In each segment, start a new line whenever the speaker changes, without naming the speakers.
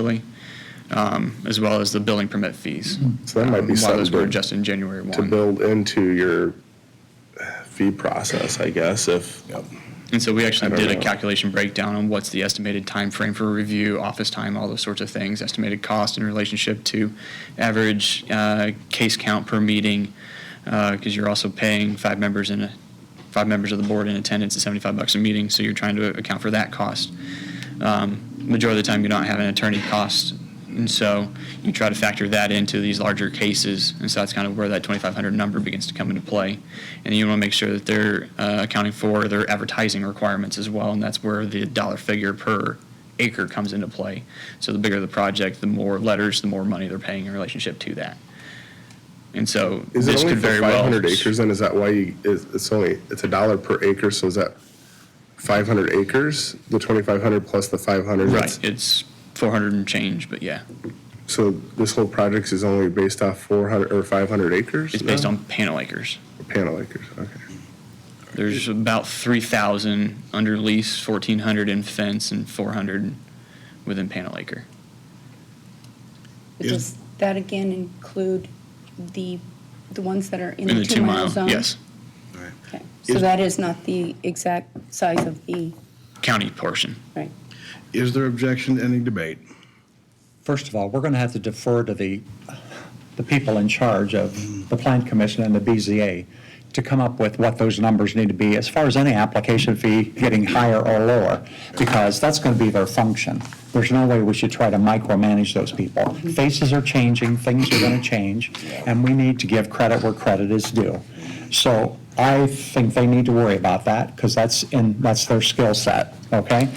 really, um, as well as the building permit fees.
Hmm. So that might be
Um, While those
something
were
to-
adjusted in January
to
1.
build into your fee process, I guess, if,
And so we
I
actually
don't
did a
know.
calculation breakdown on what's the estimated time frame for review, office time, all those sorts of things, estimated cost in relationship to average uh, case count per meeting, because you're also paying five members in, a- five members of the board in attendance at 75 bucks a meeting, so you're trying to account for that cost. Um, Majority of the time, you don't have an attorney cost, and so you try to factor that into these larger cases, and so that's kind of where that 2,500 number begins to come into play. And you want to make sure that they're uh, accounting for their advertising requirements as well, and that's where the dollar figure per acre comes into play. So the bigger the project, the more letters, the more money they're paying in relationship to that. And so
is
this
it only
could
for
very well.
five hundred acres, and is that why you, is, it's only, it's a dollar per acre, so is that five hundred acres, the twenty-five hundred plus the five hundred?
Right, it's 400 and change, but yeah.
So this whole project is only based off four hundred or five hundred acres?
It's based
now?
on panel acres.
Panel acres, okay.
There's about 3,000 under lease, 1,400 in fence, and 400 within panel acre.
But
Is-
does that again include the, the ones that are in
In
the two-mile zone?
Yes,
Right.
Okay. So
Is-
that is not the exact size of the,
county portion.
right?
Is there objection to ending debate?
First of all, we're going to have to defer to the, the people in charge of the Plan Commission and the BZA to come up with what those numbers need to be as far as any application fee getting higher or lower, because that's going to be their function. There's no way we should try to micromanage those people. Faces are changing, things are going to change, and we need to give credit where credit is due. So I think they need to worry about that, because that's in, that's their skill set, okay?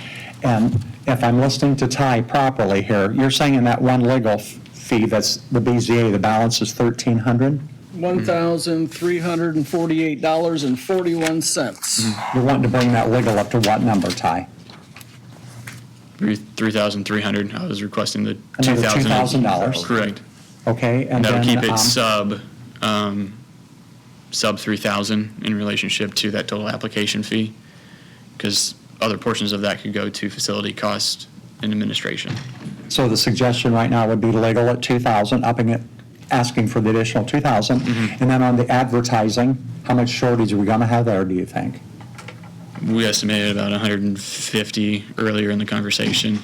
And if I'm listening to Ty properly here, you're saying in that one legal f- fee, that's the BZA, the balance is 1,300?
$1,348.41.
You're wanting to bring that legal up to what number, Ty?
Three- 3,300, I was requesting the
Another
2,000.
$2,000.
Correct.
Okay? and
That would
then,
keep
um,
it sub, um, sub 3,000 in relationship to that total application fee, because other portions of that could go to facility cost and administration.
So the suggestion right now would be legal at 2,000, upping it, asking for the additional 2,000.
Mm-hmm.
And then on the advertising, how much shortage are we going to have there, do you think?
We estimated about 150 earlier in the conversation.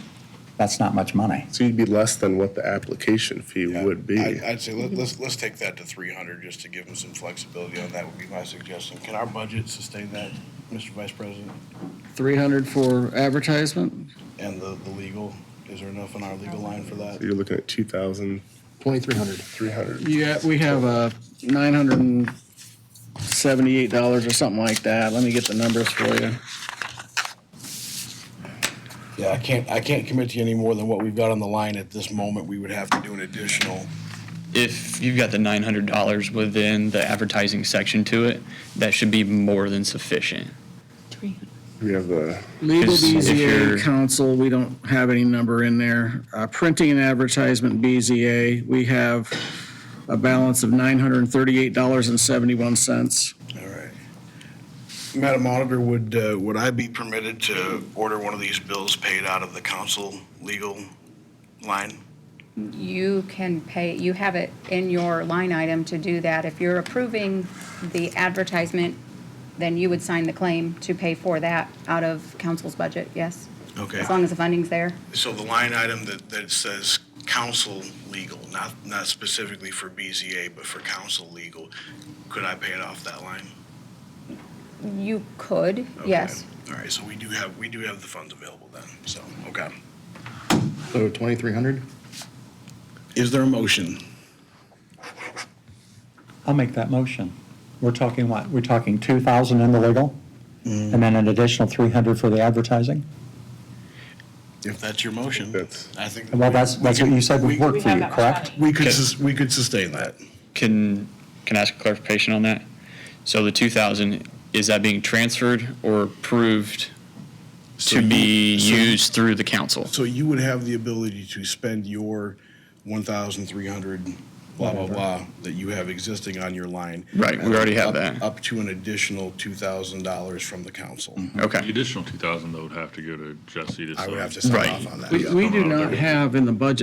That's not much money.
So you'd be less than what the application fee would be.
I- I'd say let- let's, let's take that to three hundred, just to give them some flexibility on that would be my suggestion. Can our budget sustain that, Mr. Vice President?
300 for advertisement?
And the, the legal, is there enough in our legal line for that?
So You're looking at two thousand. Twenty-three hundred. Three hundred.
Yeah, we have uh, $978 or something like that. Let me get the numbers for you.
Yeah, I can't, I can't commit to you any more than what we've got on the line at this moment. We would have to do an additional.
if you've got the nine hundred dollars within the advertising section to it, that should be more than sufficient.
We have the,
Legal
Is- if you're-
BZA, council, we don't have any number in there. Uh, Printing and advertisement, BZA, we have a balance of $938.71.
All right. Madam Auditor, would, uh, would I be permitted to order one of these bills paid out of the council legal line?
You can pay, you have it in your line item to do that. If you're approving the advertisement, then you would sign the claim to pay for that out of council's budget, yes?
Okay.
As long as the funding's there.
So the line item that, that says council legal, not, not specifically for BZA, but for council legal, could I pay it off that line?
You could,
Okay.
yes.
All right, so we do have, we do have the funds available then, so, okay.
So 2,300?
Is there a motion?
I'll make that motion. We're talking what? We're talking 2,000 in the legal? And then an additional 300 for the advertising?
If that's your motion,
That's-
I think.
Well, that's, that's what you said would work for you, correct?
We could, sus- we could sustain that.
Can, can I ask a clarification on that? So the two thousand, is that being transferred or approved
So
to
you-
be
so-
used through the council?
So you would have the ability to spend your one thousand three hundred blah, blah, blah, that you have existing on your line.
Right, we already have
Up-
that.
Up to an additional $2,000 from the council.
The
Okay.
additional two thousand though would have to go to Jesse to
I
sign.
would have to sign
Right.
off on that.
We, we do not have in the budget